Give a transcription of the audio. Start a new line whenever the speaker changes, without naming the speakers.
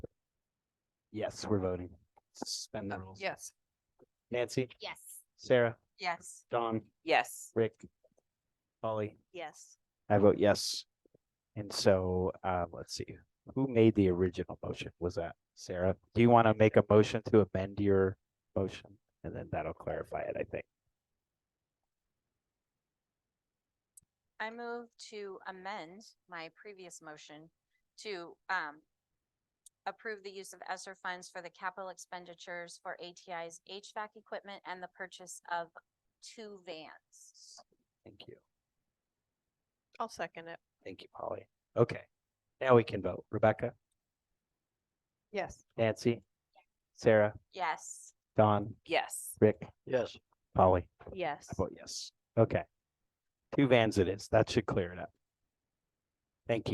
Yes, we're voting. Suspend
Oh,
the rules.
Yes.
Nancy,
Yes.
Sarah,
Yes.
John,
Yes.
Rick, Polly,
Yes.
I vote yes. And so, uh, let's see, who made the original motion? Was that Sarah? Do you want to make a motion to amend your motion? And then that'll clarify it, I think.
I move to amend my previous motion to um approve the use of ESER funds for the capital expenditures for ATI's HVAC equipment and the purchase of two vans.
Thank you.
I'll second it.
Thank you, Polly. Okay, now we can vote. Rebecca,
Yes.
Nancy, Sarah,
Yes.
Don,
Yes.
Rick,
Yes,
Polly.
Yes.
I vote yes. Okay. Two vans it is. That should clear it up. Thank you.